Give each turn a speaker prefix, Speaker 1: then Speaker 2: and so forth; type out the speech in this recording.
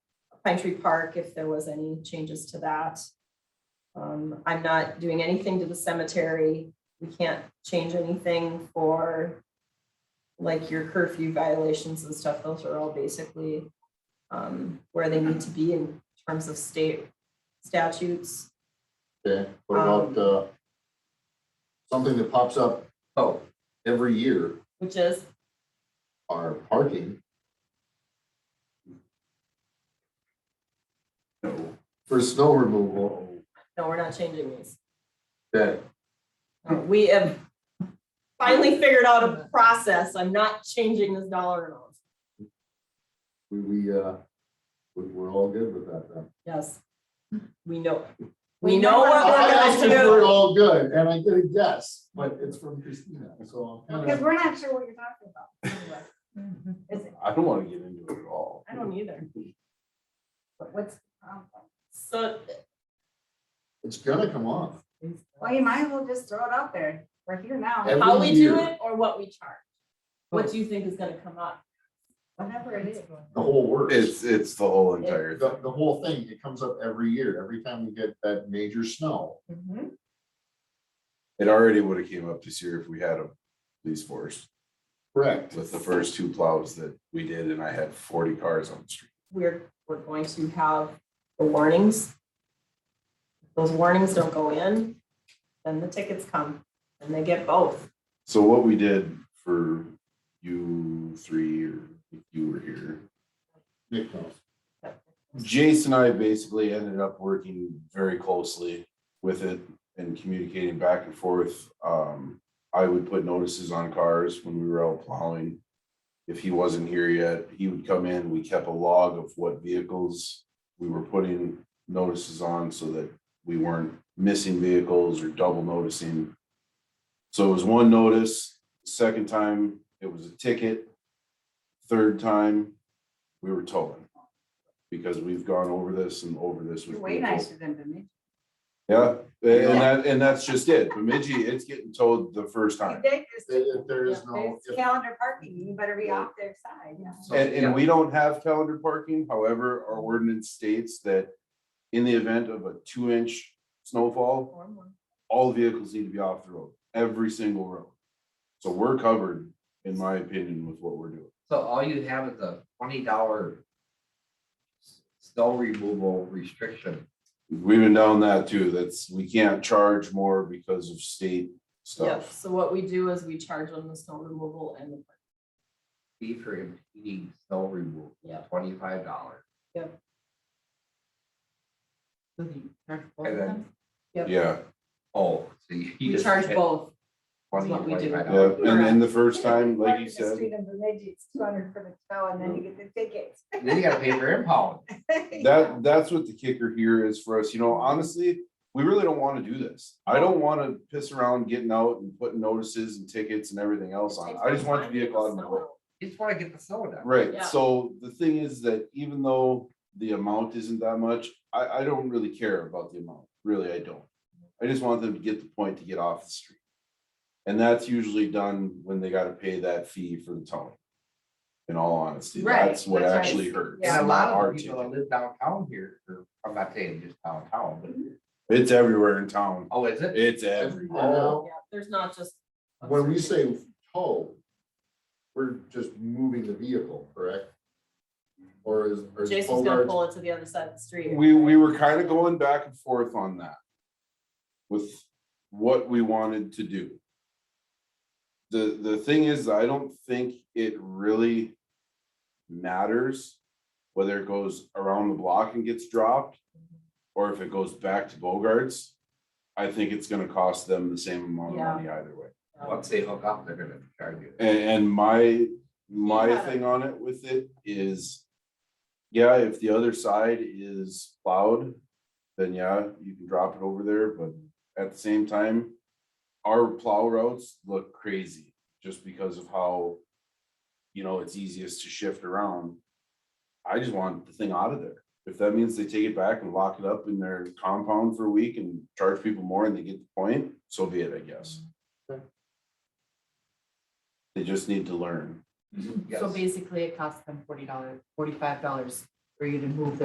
Speaker 1: Pine Tree Park, if there was any changes to that. Um, I'm not doing anything to the cemetery. We can't change anything for like your curfew violations and stuff. Those are all basically um, where they need to be in terms of state statutes.
Speaker 2: Okay, what
Speaker 1: Um,
Speaker 2: about, uh, something that pops up
Speaker 3: Oh,
Speaker 2: every year,
Speaker 1: Which is,
Speaker 2: our parking
Speaker 3: no,
Speaker 2: for snow removal.
Speaker 1: no, we're not changing these.
Speaker 2: Okay,
Speaker 1: Uh, We have finally figured out a process. I'm not changing this dollar amount.
Speaker 2: we, we, uh, we, we're all good with that then.
Speaker 1: Yes. We know,
Speaker 4: We
Speaker 1: we know what
Speaker 2: I asked
Speaker 1: we're
Speaker 2: if
Speaker 1: gonna
Speaker 2: we're
Speaker 1: do.
Speaker 2: all good, and I did a guess, but it's from Christina, so I'm
Speaker 4: Because
Speaker 2: kind
Speaker 4: we're not sure what you're talking about. anyway. Is it,
Speaker 3: I don't wanna get into it at all.
Speaker 1: I don't either.
Speaker 4: what- what's, the problem?
Speaker 1: So
Speaker 2: it's gonna come off.
Speaker 4: well, you might as well just throw it out there. We're here now,
Speaker 2: Every
Speaker 1: how we do Oh.
Speaker 2: year,
Speaker 1: it or what we charge? What do you think is gonna come up?
Speaker 4: whatever it is.
Speaker 2: The whole works.
Speaker 5: It's, it's the whole entire
Speaker 2: The,
Speaker 5: thing.
Speaker 2: the whole thing, it comes up every year, every time we get that major snow.
Speaker 5: It already would have came up this year if we had a police force
Speaker 2: Correct.
Speaker 5: with the first two plows that we did and I had forty cars on the street.
Speaker 1: We're, we're going to have the warnings. If Those warnings don't go in, then the tickets come and they get both.
Speaker 5: So what we did for you three or if you were here,
Speaker 2: Nick knows.
Speaker 5: Jason and I basically ended up working very closely with it and communicating back and forth. Um, I would put notices on cars when we were out plowing. If he wasn't here yet, he would come in. We kept a log of what vehicles we were putting notices on so that we weren't missing vehicles or double noticing. So it was one notice, second time it was a ticket, third time we were towing. Because we've gone over this and over this with
Speaker 4: You're way
Speaker 5: people.
Speaker 4: nicer than me.
Speaker 5: Yeah, and that, and that's just it. Bemidji, it's getting towed the first time.
Speaker 2: There-
Speaker 4: There's
Speaker 2: there is no, if
Speaker 4: calendar parking, you better be off their side, yeah.
Speaker 5: And, and we don't have calendar parking. However, our ordinance states that in the event of a two inch snowfall, all vehicles need to be off the road, every single road. So we're covered, in my opinion, with what we're doing.
Speaker 3: So all you have is a twenty dollar snow removal restriction.
Speaker 5: We've been down that too. That's, we can't charge more because of state
Speaker 1: Yep,
Speaker 5: stuff.
Speaker 1: so what we do is we charge them the snow removal and the
Speaker 3: fee for impeding snow removal,
Speaker 1: Yep.
Speaker 3: twenty-five dollars. And
Speaker 6: Well,
Speaker 3: then,
Speaker 1: Yep.
Speaker 5: Yeah,
Speaker 3: oh, so you. you
Speaker 1: We
Speaker 3: just
Speaker 1: charge
Speaker 3: hit
Speaker 1: both.
Speaker 3: $20,
Speaker 1: what we do.
Speaker 5: yeah.
Speaker 3: $25.
Speaker 5: And then the first time, like you said.
Speaker 4: It's two hundred for the tow and then you get the tickets.
Speaker 3: Then you gotta pay for impound.
Speaker 5: That, that's what the kicker here is for us, you know, honestly, we really don't wanna do this. I don't wanna piss around getting out and putting notices and tickets and everything else on. I just want the vehicle out of my way.
Speaker 3: You just wanna get the soda.
Speaker 5: Right,
Speaker 1: Yeah.
Speaker 5: so the thing is that even though the amount isn't that much, I, I don't really care about the amount, really, I don't. I just want them to get the point to get off the street. And that's usually done when they gotta pay that fee for the towing. In all honesty,
Speaker 1: Right,
Speaker 5: that's what
Speaker 1: that's right.
Speaker 5: actually hurts.
Speaker 3: And a
Speaker 5: not
Speaker 3: lot
Speaker 5: our
Speaker 3: of the people
Speaker 5: ticket.
Speaker 3: that live downtown here, or I'm not saying just downtown, but,
Speaker 5: It's everywhere in town,
Speaker 3: oh, is it?
Speaker 5: it's everywhere.
Speaker 2: everywhere now,
Speaker 1: Yeah, there's not just.
Speaker 2: When we say tow, we're just moving the vehicle, correct? Or is, or is
Speaker 1: Jason's gonna
Speaker 2: Bogart's,
Speaker 1: pull it to the other side of the street.
Speaker 5: We, we were kind of going back and forth on that. With what we wanted to do. The, the thing is, I don't think it really matters whether it goes around the block and gets dropped. Or if it goes back to Bogarts. I think it's gonna cost them the same amount of
Speaker 1: Yeah.
Speaker 5: money either way.
Speaker 1: Um,
Speaker 3: Once they hook up, they're gonna charge you.
Speaker 5: And, and my, my
Speaker 1: Yeah.
Speaker 5: thing on it with it is, yeah, if the other side is plowed, then yeah, you can drop it over there, but at the same time, our plow routes look crazy just because of how, you know, it's easiest to shift around. I just want the thing out of there. If that means they take it back and lock it up in their compound for a week and charge people more and they get the point, so be it, I guess.
Speaker 2: Okay.
Speaker 5: They just need to learn.
Speaker 3: Yes.
Speaker 6: So basically, it costs them forty dollars, forty-five dollars for you to move